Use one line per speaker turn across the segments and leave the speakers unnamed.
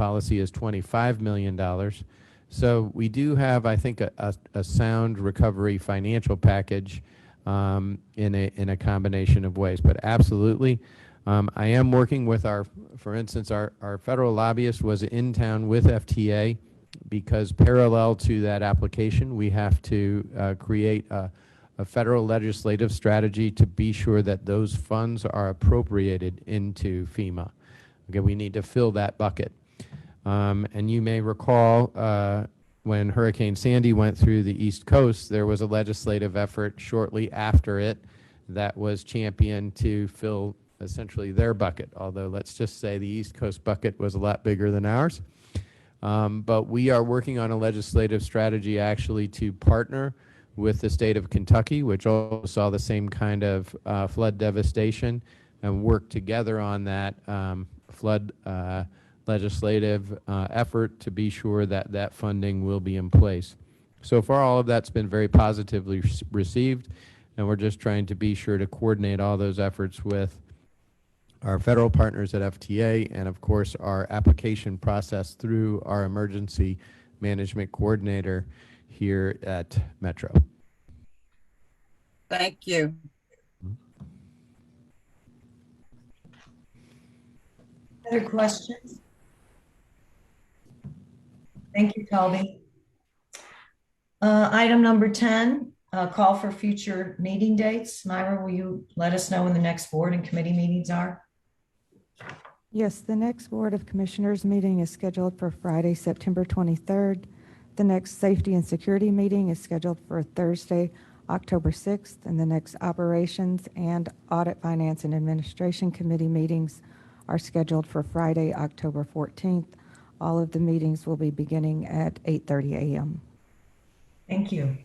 policy is $25 million. So we do have, I think, a, a, a sound recovery financial package um, in a, in a combination of ways. But absolutely, um, I am working with our, for instance, our, our federal lobbyist was in town with FTA because parallel to that application, we have to uh, create a, a federal legislative strategy to be sure that those funds are appropriated into FEMA. Okay, we need to fill that bucket. Um, and you may recall uh, when Hurricane Sandy went through the East Coast, there was a legislative effort shortly after it that was championed to fill essentially their bucket. Although, let's just say the East Coast bucket was a lot bigger than ours. Um, but we are working on a legislative strategy actually to partner with the state of Kentucky, which also saw the same kind of uh, flood devastation, and work together on that um, flood uh, legislative uh, effort to be sure that that funding will be in place. So far, all of that's been very positively s- received, and we're just trying to be sure to coordinate all those efforts with our federal partners at FTA, and of course, our application process through our emergency management coordinator here at Metro.
Thank you.
Other questions? Thank you, Colby. Uh, Item number 10, uh, call for future meeting dates. Myra, will you let us know when the next board and committee meetings are?
Yes, the next Board of Commissioners meeting is scheduled for Friday, September 23rd. The next Safety and Security meeting is scheduled for Thursday, October 6th, and the next Operations and Audit Finance and Administration Committee meetings are scheduled for Friday, October 14th. All of the meetings will be beginning at 8:30 a.m.
Thank you.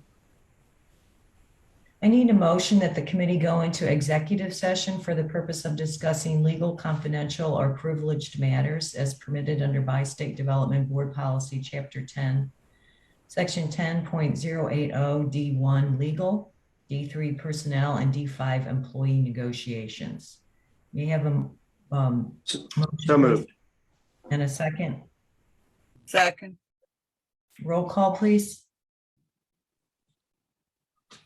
I need a motion that the committee go into executive session for the purpose of discussing legal, confidential, or privileged matters as permitted under Bi-State Development Board Policy, Chapter 10, Section 10.080, D1, oh, Legal, D3, Personnel, and D5, Employee Negotiations. We have a, um,
So moved.
and a second.
Second,
Roll call, please.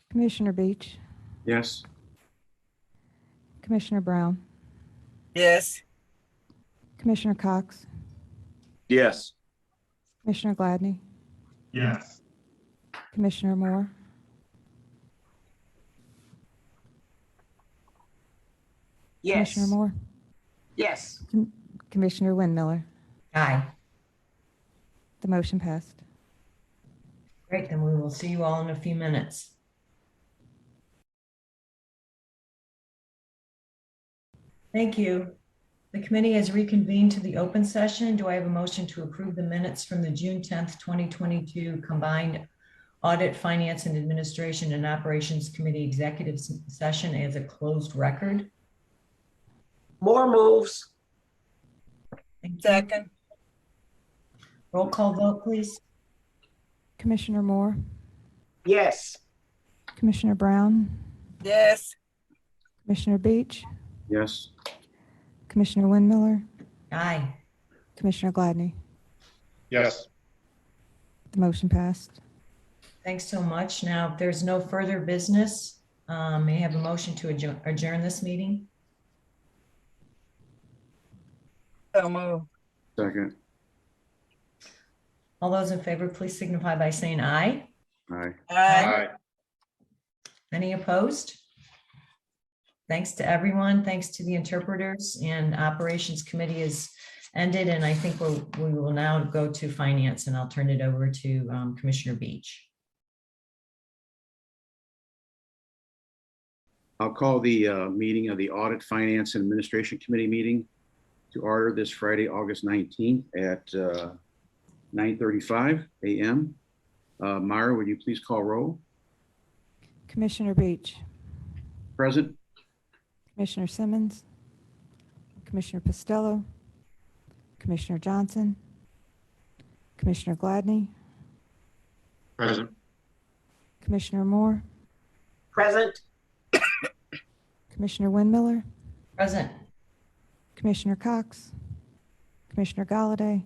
Commissioner Beach,
Yes.
Commissioner Brown,
yes,
Commissioner Cox,
Yes.
Commissioner Gladney,
Yes.
Commissioner Moore, Commissioner Moore,
Yes.
Commissioner Winmiller.
Aye.
The motion passed.
Great, then we will see you all in a few minutes. Thank you. The committee has reconvened to the open session. Do I have a motion to approve the minutes from the June 10th, 2022 combined Audit, Finance and Administration and Operations Committee Executive S- Session as a closed record?
More moves.
Thank you.
second,
Roll call vote, please.
Commissioner Moore,
Yes.
Commissioner Brown,
yes,
Commissioner Beach,
Yes.
Commissioner Winmiller,
Aye.
Commissioner Gladney.
Yes.
The motion passed.
Thanks so much. Now, if there's no further business, um, may I have a motion to adjourn- adjourn this meeting?
so move,
Second.
All those in favor, please signify by saying aye.
Aye.
aye.
Aye.
Any opposed? Thanks to everyone. Thanks to the interpreters and Operations Committee is ended, and I think we'll- we will now go to Finance, and I'll turn it over to um, Commissioner Beach.
I'll call the uh, meeting of the Audit, Finance, and Administration Committee meeting to order this Friday, August 19th at uh, 9:35 a.m. Uh, Myra, would you please call roll?
Commissioner Beach,
Present?
Commissioner Simmons, Commissioner Costello, Commissioner Johnson, Commissioner Gladney,
Present.
Commissioner Moore,
Present.
Commissioner Winmiller,
Present.
Commissioner Cox, Commissioner Galladay,